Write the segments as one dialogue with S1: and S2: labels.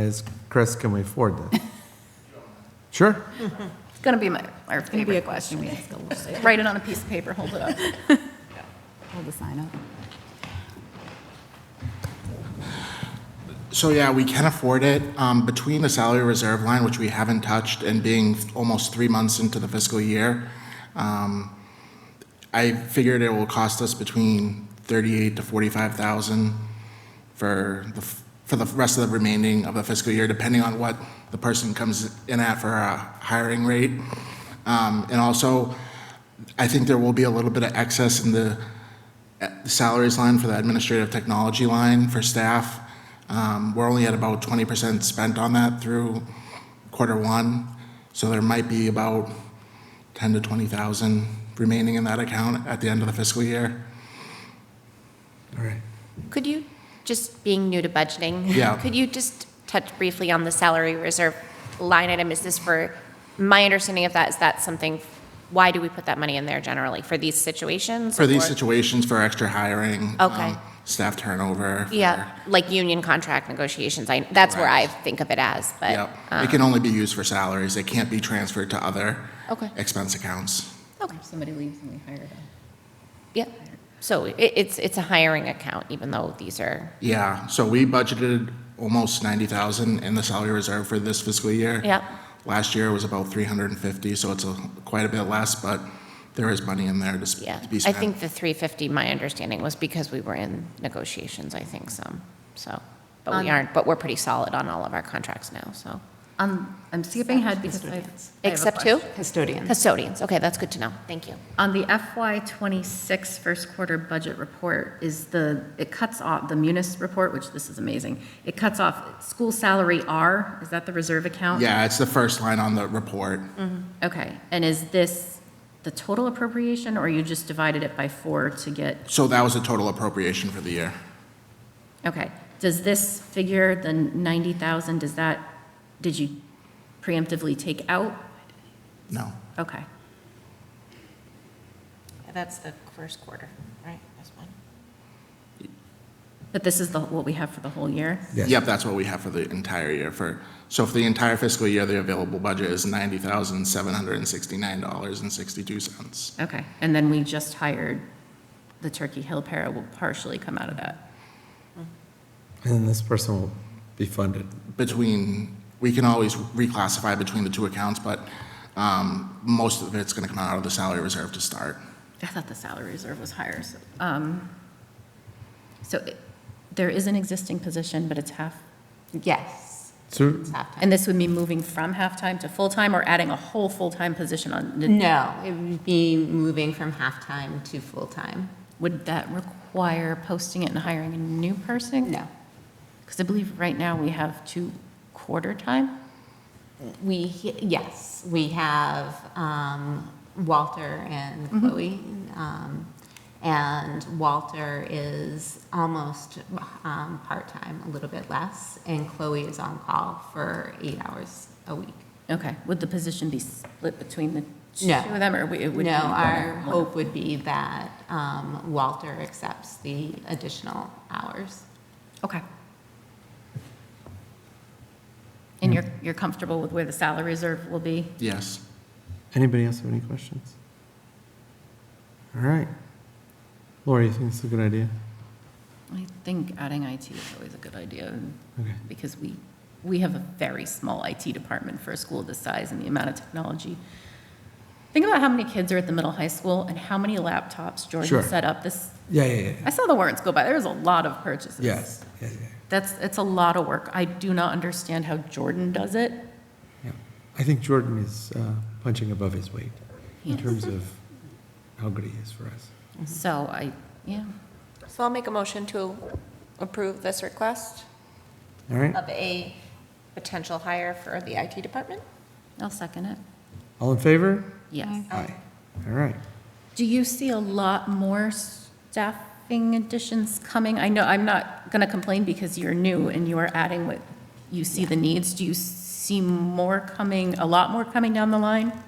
S1: Is, Chris, can we afford that? Sure.
S2: It's going to be my, our
S3: It's going to be a
S2: favorite
S3: question
S2: question.
S3: we ask a little bit.
S2: Write it on a piece of paper, hold it up.
S3: Hold the sign up.
S4: So yeah, we can afford it. Um, Between the salary reserve line, which we haven't touched, and being almost three months into the fiscal year, um, I figured it will cost us between thirty-eight to forty-five thousand for the, f- for the rest of the remaining of the fiscal year, depending on what the person comes in at for a hiring rate. Um, And also, I think there will be a little bit of excess in the at the salaries line for the administrative technology line for staff. Um, We're only at about 20% spent on that through quarter one, so there might be about 10 to 20,000 remaining in that account at the end of the fiscal year.
S1: All right.
S5: Could you, just being new to budgeting?
S4: Yeah.
S5: Could you just touch briefly on the salary reserve line item? Is this for, my understanding of that is that something, why do we put that money in there generally? For these situations?
S4: For these
S5: or-
S4: situations, for extra hiring.
S5: Okay.
S4: um, Staff turnover. for-
S5: Yeah, like union contract negotiations, I, that's where I think of it as, but. uh, um,
S4: Yep. It can only be used for salaries. It can't be transferred to other
S5: Okay.
S4: expense accounts.
S5: Okay.
S3: If somebody leaves and we hire them.
S5: Yeah, so it, it's, it's a hiring account, even though these are,
S4: Yeah, so we budgeted almost ninety thousand in the salary reserve for this fiscal year.
S5: Yep.
S4: Last year was about three hundred and fifty, so it's a, quite a bit less, but there is money in there to sp-
S5: yeah.
S4: to be
S5: I
S4: spent.
S5: think the 350, my understanding was because we were in negotiations, I think some, so. But we aren't, but we're pretty solid on all of our contracts now, so.
S2: Um, I'm skipping ahead because I I have a
S5: Except who?
S2: question.
S3: Custodian.
S5: Custodians, okay, that's good to know, thank you.
S2: On the FY '26 first quarter budget report is the, it cuts off, the munis report, which this is amazing, it cuts off school salary R, is that the reserve
S5: uh,
S2: account?
S4: Yeah, it's the first line on the report.
S5: Mm.
S2: Okay, and is this the total appropriation, or you just divided it by four to get,
S4: So that was the total appropriation for the year.
S2: okay. Does this figure, the 90,000, does that, did you preemptively take out?
S4: No,
S2: Okay.
S6: That's the first quarter, right? That's one.
S2: But this is the, what we have for the whole year?
S1: Yes.
S4: yep, that's what we have for the entire year for, so for the entire fiscal year, the available budget is ninety thousand, seven hundred and sixty-nine dollars and sixty-two cents.
S2: Okay, and then we just hired the Turkey Hill para will partially come out of that.
S1: And then this person will be funded.
S4: between, we can always reclassify between the two accounts, but um, most of it's going to come out of the salary reserve to start.
S2: I thought the salary reserve was higher, so. um, So it- there is an existing position, but it's half,
S3: Yes.
S1: So,
S2: and this would be moving from half-time to full-time or adding a whole full-time position on?
S6: No, it would be moving from half-time to full-time.
S2: Would that require posting it and hiring a new person?
S6: No.
S2: Because I believe right now we have two quarter-time?
S6: We, yes, we have um, Walter and
S2: Mm-hmm.
S6: Chloe. um, And Walter is almost um, part-time, a little bit less, and Chloe is on call for eight hours a week.
S2: Okay, would the position be split between the two
S6: No.
S2: of them, or we- it would?
S6: No,
S2: be one or
S6: our
S2: one?
S6: hope would be that um, Walter accepts the additional hours.
S2: Okay. And you're, you're comfortable with where the salary reserve will be?
S4: Yes.
S1: anybody else have any questions? All right. Laura, you think this is a good idea?
S2: I think adding IT is always a good idea,
S1: Okay.
S2: because we, we have a very small IT department for a school this size and the amount of technology. Think about how many kids are at the middle high school and how many laptops
S1: Sure.
S2: Jordan set up this,
S1: Yeah, yeah, yeah.
S2: I saw the warrants go by, there was a lot of purchases.
S1: Yes, yeah, yeah.
S2: That's, it's a lot of work. I do not understand how Jordan does it.
S1: yeah. I think Jordan is uh, punching above his weight in
S2: Yes.
S1: terms of how good he is for us.
S2: So I, yeah,
S5: So I'll make a motion to approve this request
S1: All right,
S5: of a potential hire for the IT department?
S2: I'll second it.
S1: all in favor?
S2: Yes.
S1: Aye. All right.
S2: Do you see a lot more staffing additions coming? I know, I'm not going to complain because you're new and you are adding what you see the needs. Do you see more coming, a lot more coming down the line?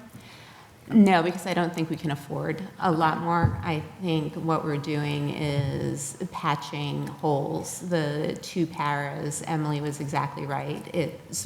S6: No, because I don't think we can afford a lot more. I think what we're doing is patching holes. The two paras, Emily was exactly right. It's